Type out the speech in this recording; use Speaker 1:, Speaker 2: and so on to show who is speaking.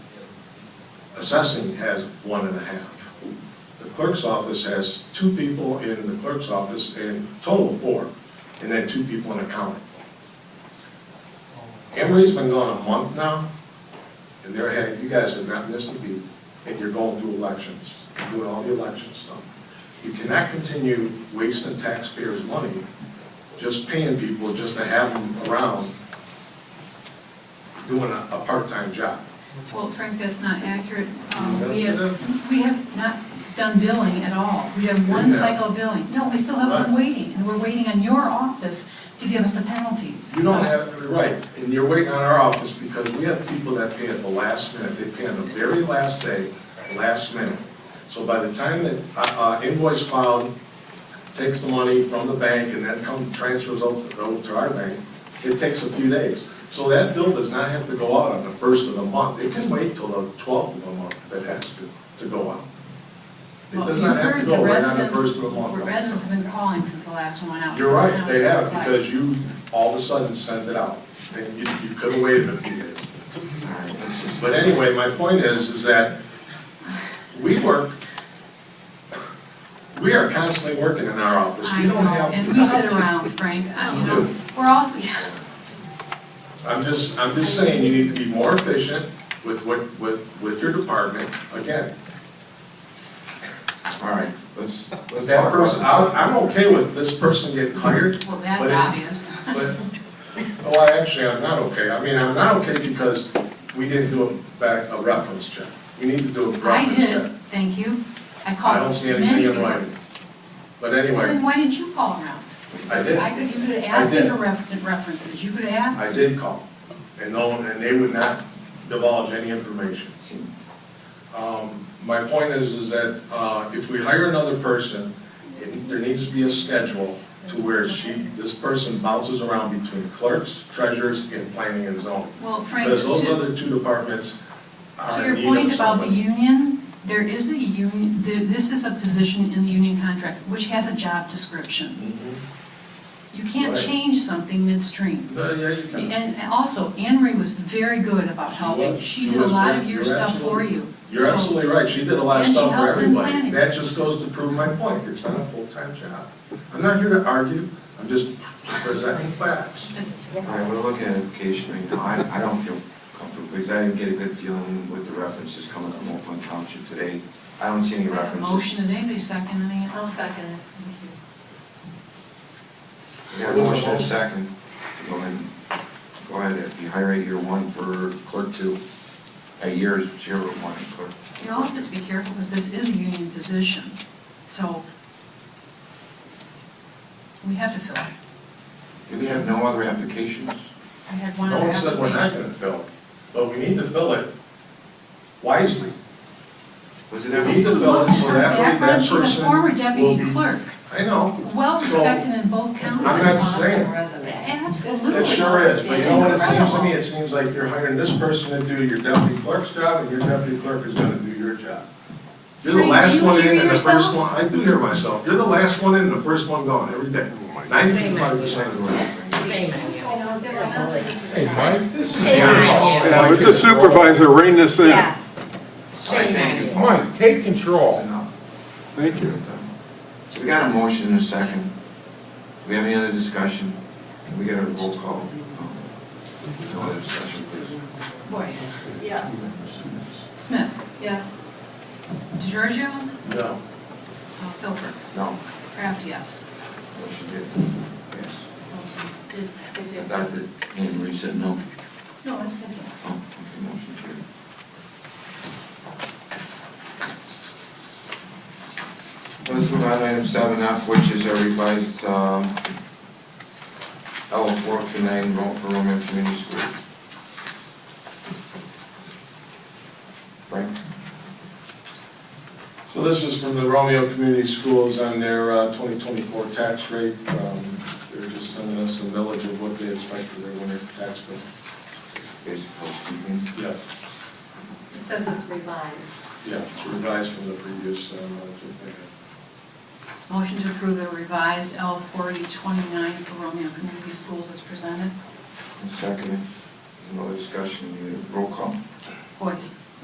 Speaker 1: assessing has one and a half. The clerk's office has two people in the clerk's office, and total of four, and then two people in accounting. Emery's been gone a month now, and they're headed, you guys have gotten this to be, and you're going through elections, doing all the election stuff. You cannot continue wasting taxpayers' money, just paying people just to have them around doing a, a part-time job.
Speaker 2: Well, Frank, that's not accurate. Um,
Speaker 1: Yes,
Speaker 2: We
Speaker 1: it
Speaker 2: have, we have not done billing at all. We have one
Speaker 1: Yeah.
Speaker 2: cycle of billing. No, we still have one waiting, and we're waiting on your office to give us the penalties.
Speaker 1: You don't
Speaker 2: So-
Speaker 1: have, it right, and you're waiting on our office because we have people that pay at the last minute, they pay on the very last day, last minute. So by the time that uh, uh, invoice cloud takes the money from the bank and then comes, transfers over over to our bank, it takes a few days. So that bill does not have to go out on the first of the month, it can wait till the twelfth of the month if it has to, to go out. It
Speaker 2: Well,
Speaker 1: does
Speaker 2: you've
Speaker 1: not have to
Speaker 2: heard
Speaker 1: go
Speaker 2: the
Speaker 1: right on the
Speaker 2: residents-
Speaker 1: first of the month.
Speaker 2: The residents have been calling since the last one went out.
Speaker 1: You're right, they have,
Speaker 2: Right.
Speaker 1: because you all of a sudden sent it out, and you, you could have waited a few days. But anyway, my point is, is that we work, we are constantly working in our office,
Speaker 2: I
Speaker 1: we
Speaker 2: know,
Speaker 1: don't have.
Speaker 2: and we sit around, Frank, I- you know, we're also,
Speaker 1: I'm just, I'm just saying, you need to be more efficient with what, with, with your department, again.
Speaker 3: All right, let's, let's
Speaker 1: That
Speaker 3: talk
Speaker 1: person,
Speaker 3: about
Speaker 1: I, I'm okay with this person getting hired.
Speaker 2: well,
Speaker 1: but
Speaker 2: that's
Speaker 1: it-
Speaker 2: obvious.
Speaker 1: But, oh, I actually, I'm not okay. I mean, I'm not okay because we didn't do a back, a reference check. We need to do a
Speaker 2: I
Speaker 1: reference check.
Speaker 2: did, thank you. I
Speaker 1: I
Speaker 2: called
Speaker 1: don't see
Speaker 2: many
Speaker 1: anything in
Speaker 2: people.
Speaker 1: writing. But
Speaker 2: Then
Speaker 1: anyway,
Speaker 2: why didn't you call around?
Speaker 1: I did.
Speaker 2: I could, you could have
Speaker 1: I
Speaker 2: asked me
Speaker 1: did.
Speaker 2: for reference- references, you could have asked.
Speaker 1: I did call, and no, one- and they would not divulge any information. Um, my point is, is that, uh, if we hire another person, it- there needs to be a schedule to where she, this person bounces around between clerks, treasurers, and planning and zoning.
Speaker 2: Well, Frank,
Speaker 1: Because those
Speaker 2: to,
Speaker 1: other two departments
Speaker 2: to
Speaker 1: are in
Speaker 2: your
Speaker 1: need
Speaker 2: point
Speaker 1: of
Speaker 2: about the
Speaker 1: somebody.
Speaker 2: union, there is a union, there- this is a position in the union contract which has a job description.
Speaker 1: Mhm.
Speaker 2: You can't
Speaker 1: Right.
Speaker 2: change something midstream.
Speaker 1: So, Yeah, you can.
Speaker 2: And also, Anne Marie was very good about
Speaker 1: She
Speaker 2: helping.
Speaker 1: was.
Speaker 2: She
Speaker 1: She
Speaker 2: did a
Speaker 1: was
Speaker 2: lot
Speaker 1: very-
Speaker 2: of your
Speaker 1: you're
Speaker 2: stuff for
Speaker 1: absolutely-
Speaker 2: you.
Speaker 1: You're
Speaker 2: So-
Speaker 1: absolutely right, she did a lot of
Speaker 2: And she
Speaker 1: stuff for
Speaker 2: helped in
Speaker 1: everybody.
Speaker 2: planning.
Speaker 1: That just goes to prove my point, it's not a full-time job. I'm not here to argue, I'm just presenting facts.
Speaker 2: It's-
Speaker 3: it. All right, we're looking at education right now, I, I don't feel comfortable, because I didn't get a good feeling with the references coming from Oakland Township today. I don't see any references.
Speaker 2: Motion, did anybody second any?
Speaker 4: I'll second it. Thank you.
Speaker 3: We got a motion and a second, go ahead, go ahead, if you hire a year one for clerk two, a year zero one clerk.
Speaker 2: You also have to be careful because this is a union position, so we have to fill it.
Speaker 3: Do we have no other applications?
Speaker 2: I had one
Speaker 1: No
Speaker 2: other
Speaker 1: one said we're not
Speaker 2: application.
Speaker 1: gonna fill it, but we need to fill it wisely.
Speaker 3: Was it
Speaker 1: We
Speaker 3: ever?
Speaker 1: need to fill it so that way that
Speaker 2: Background,
Speaker 1: person will be.
Speaker 2: She's a former deputy clerk,
Speaker 1: I know.
Speaker 2: well-respected in both counties.
Speaker 1: I'm not saying-
Speaker 2: Absolutely.
Speaker 1: It sure is, but you know what it seems to me, it
Speaker 2: It's
Speaker 1: seems like you're hiring this person to do your deputy clerk's job, and your deputy clerk is gonna do your job. You're the
Speaker 2: Frank, do
Speaker 1: last
Speaker 2: you
Speaker 1: one
Speaker 2: hear
Speaker 1: in and the first
Speaker 2: yourself?
Speaker 1: one, I do hear myself, you're the last one in and the first one gone every day, ninety-five percent of the time.
Speaker 5: Hey, Mike, this is,
Speaker 3: Yeah,
Speaker 6: Mr. supervisor, rein this in.
Speaker 4: Yeah.
Speaker 3: All right, thank you.
Speaker 5: Mike, take control.
Speaker 3: That's enough.
Speaker 6: Thank you.
Speaker 3: So we got a motion and a second. Do we have any other discussion? Can we get a roll call? No other discussion, please.
Speaker 2: Voice.
Speaker 4: Yes.
Speaker 2: Smith.
Speaker 4: Yes.
Speaker 2: DeGiorgio. uh,
Speaker 1: No.
Speaker 2: Philbrook.
Speaker 3: No,
Speaker 2: Kraft, yes.
Speaker 3: motion did. Yes.
Speaker 2: Did- did-
Speaker 3: Adopted, and Marie said no.
Speaker 2: No, I said yes.
Speaker 3: Oh, okay, motion carried. Let's move on to item seven F, which is a revised, um, L four to nine, vote for Roman Community School. Frank?
Speaker 1: So this is from the Romeo Community Schools on their uh, 2024 tax rate. Um, They're just sending us a millage of what they expect for their winter tax bill.
Speaker 3: Basic housekeeping.
Speaker 1: Yeah,
Speaker 4: It says it's revised.
Speaker 1: yeah, it's revised from the previous, uh, millage.
Speaker 2: Motion to approve the revised L forty twenty-nine for Romeo Community Schools is presented.
Speaker 3: Second, no other discussion, you roll call.
Speaker 2: Voice.